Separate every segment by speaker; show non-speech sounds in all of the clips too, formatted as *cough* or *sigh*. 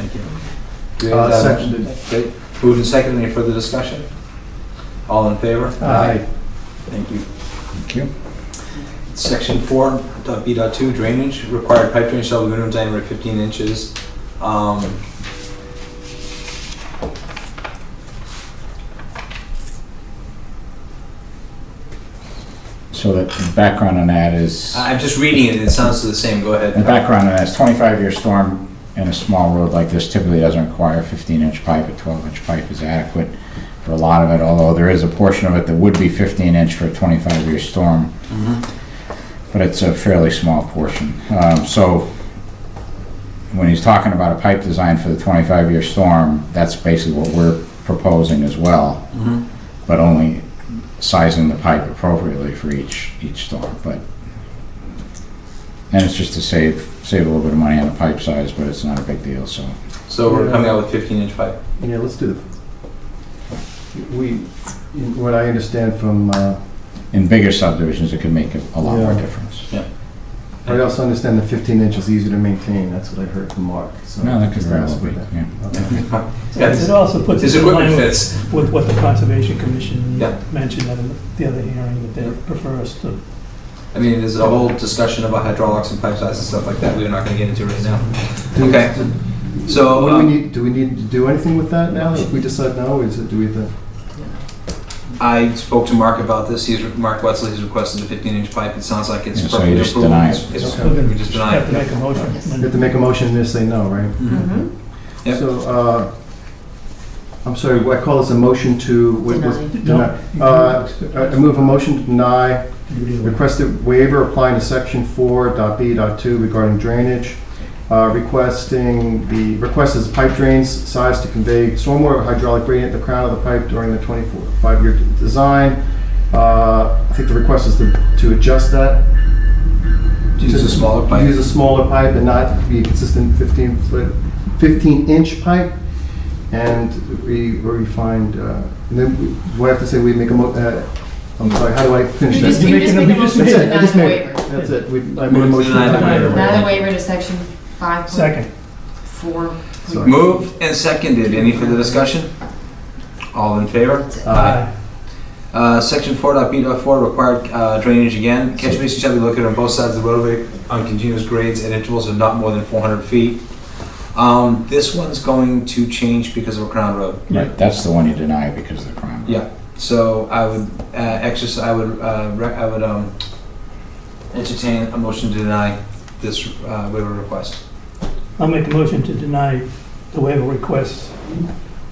Speaker 1: you.
Speaker 2: Do you
Speaker 1: Uh,
Speaker 2: have that?
Speaker 1: Seconded.
Speaker 2: Okay, moved and seconded, any further discussion? All in favor?
Speaker 1: Aye. Thank you.
Speaker 3: Thank you.
Speaker 2: Section four, dot B dot two, drainage, required pipe drainage shall be minimum diameter of fifteen inches. Um,
Speaker 3: So the- the background on that is,
Speaker 2: I- I'm just reading it, and it sounds the same, go ahead.
Speaker 3: the background on that is 25-year storm in a small road like this typically doesn't require 15-inch pipe. A 12-inch pipe is adequate for a lot of it, although there is a portion of it that would be 15-inch for a 25-year storm.
Speaker 2: Mhm.
Speaker 3: but it's a fairly small portion. Um, So when he's talking about a pipe design for the 25-year storm, that's basically what we're proposing as well,
Speaker 2: Mhm.
Speaker 3: but only sizing the pipe appropriately for each, each storm, but, and it's just to save, save a little bit of money on the pipe size, but it's not a big deal, so.
Speaker 2: So we're coming out with fifteen inch pipe.
Speaker 1: Yeah, let's do the, we, in- what I understand from, uh,
Speaker 3: In bigger subdivisions, it could make a a lot more
Speaker 1: Yeah.
Speaker 3: difference.
Speaker 1: I also understand the 15 inch is easier to maintain, that's what I heard from Mark, so.
Speaker 3: No, that could
Speaker 1: just
Speaker 3: very
Speaker 1: ask
Speaker 3: well
Speaker 1: for
Speaker 3: be,
Speaker 1: that.
Speaker 3: yeah.
Speaker 1: Okay.
Speaker 2: Yeah,
Speaker 4: It also puts
Speaker 2: His
Speaker 4: it in
Speaker 2: equipment
Speaker 4: line with-
Speaker 2: fits.
Speaker 4: with what the Conservation Commission
Speaker 2: Yeah.
Speaker 4: mentioned at the other hearing, that they prefer us to.
Speaker 2: I mean, there's a whole discussion about hydraulics and pipe size and stuff like that, we're not gonna get into right now.
Speaker 1: Do-
Speaker 2: Okay. So,
Speaker 1: What do we
Speaker 2: um,
Speaker 1: need, do we need to do anything with that now, if we decide no, is it, do we, the-
Speaker 2: I spoke to Mark about this, he's, Mark Wetzel, he's requested a fifteen inch pipe, it sounds like it's
Speaker 3: Yeah, so you
Speaker 2: perfectly
Speaker 3: just
Speaker 2: approved.
Speaker 3: deny
Speaker 2: It's-
Speaker 3: it.
Speaker 2: it's-
Speaker 4: Okay.
Speaker 2: We just deny
Speaker 4: Have to
Speaker 2: it.
Speaker 4: make a motion.
Speaker 1: we have to make a motion and just say no, right?
Speaker 2: Mhm.
Speaker 5: Mm-hmm.
Speaker 2: Yep.
Speaker 1: So, uh, I'm sorry, what I call this a motion to? what was-
Speaker 4: No.
Speaker 1: deny. Uh, I I move a motion to deny Requested waiver applying to section four dot B dot two regarding drainage. Uh, Requesting the, request is pipe drains size to convey stormwater hydraulic gradient at the crown of the pipe during the 25-year design. Uh, I think the request is to to adjust that.
Speaker 2: Use a smaller
Speaker 1: Use
Speaker 2: pipe.
Speaker 1: a smaller pipe and not be a consistent 15-foot, 15-inch pipe. And we or we find, uh, and then we- do I have to say we make a mo, uh, I'm sorry, how do I finish
Speaker 5: You
Speaker 1: that?
Speaker 5: just, you just make a motion to
Speaker 1: That's it, I
Speaker 5: deny
Speaker 1: just
Speaker 5: the
Speaker 1: made it.
Speaker 5: waiver.
Speaker 1: That's it, we, I made a motion.
Speaker 2: Deny the
Speaker 4: waiver.
Speaker 5: Deny the waiver to section five point
Speaker 4: Second.
Speaker 5: four.
Speaker 1: Sorry.
Speaker 2: Moved and seconded, any further discussion? All in favor?
Speaker 1: Uh,
Speaker 2: Uh, section four dot B dot four, required uh, drainage again, catch basin shall be located on both sides of the roadway on continuous grades at intervals of not more than four hundred feet. Um, this one's going to change because of a crown road.
Speaker 3: Right, that's the one you deny because of the crime.
Speaker 2: Yeah. So I would uh, exercise. I would. Uh, rec- I would um, entertain a motion to deny this uh, waiver request.
Speaker 4: I'll make a motion to deny the waiver request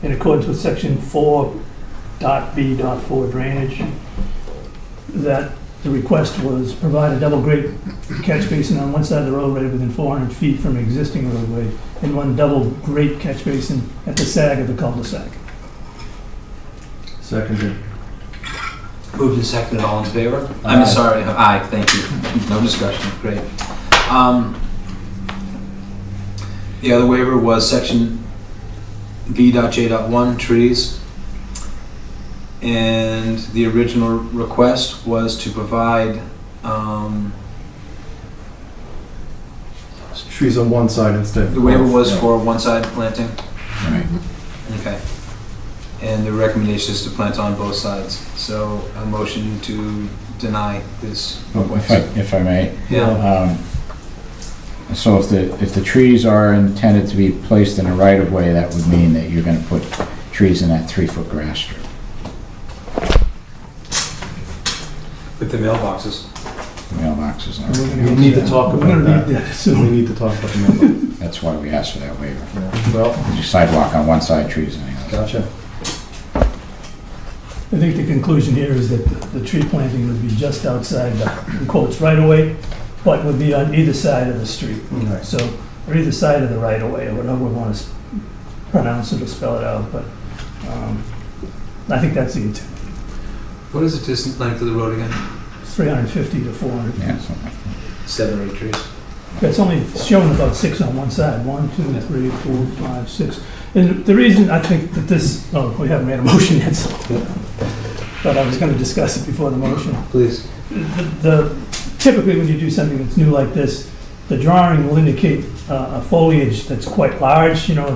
Speaker 4: in accordance with section four dot B dot four drainage, that the request was provide a double grade catch basin on one side of the roadway within four hundred feet from existing roadway, and one double grade catch basin at the sag of the cul-de-sac.
Speaker 1: Seconded.
Speaker 2: Moved and seconded. All in favor? I'm
Speaker 1: Aye.
Speaker 2: sorry. Aye. Thank you. No discussion. Great. Um, the other waiver was section V.J.1 trees. And the original request was to provide um,
Speaker 1: Trees on one side instead.
Speaker 2: The waiver was
Speaker 1: Yeah.
Speaker 2: for one side planting?
Speaker 3: Right.
Speaker 2: Okay. And the recommendation is to plant on both sides. So a motion to deny this
Speaker 3: If Oh, I,
Speaker 2: request.
Speaker 3: if I may,
Speaker 2: Yeah,
Speaker 3: Um, So if the, if the trees are intended to be placed in a right-of-way, that would mean that you're gonna put trees in that three-foot grass strip.
Speaker 2: with the mailboxes.
Speaker 3: Mailboxes, and
Speaker 4: We're
Speaker 3: everything.
Speaker 4: gonna
Speaker 1: We need to talk
Speaker 4: We're
Speaker 1: about
Speaker 4: gonna need
Speaker 1: that.
Speaker 4: that
Speaker 1: We
Speaker 4: soon.
Speaker 1: need to talk about the
Speaker 3: that's why we asked for that waiver.
Speaker 1: number. Well,
Speaker 3: There's a Sidewalk on one side, trees on the other.
Speaker 1: gotcha.
Speaker 4: I think the conclusion here is that the- the tree planting would be just outside the in quotes right away, but would be on either side of the street.
Speaker 1: Nice.
Speaker 4: So, or either side of the right of way, or whatever we want to pronounce it or spell it out, but um, I think that's the intent,
Speaker 2: What is the distance length of the road again?
Speaker 4: 350 to 400.
Speaker 3: Yeah, something like that.
Speaker 2: Seven or eight trees.
Speaker 4: That's only showing about six on one side, one, two, three, four, five, six. And the reason I think that this, oh, we haven't made a *laughs* motion yet, so, but I was going to discuss it before the motion.
Speaker 2: Please.
Speaker 4: the, typically when you do something that's new like this, the drawing will indicate uh, a foliage that's quite large, you know,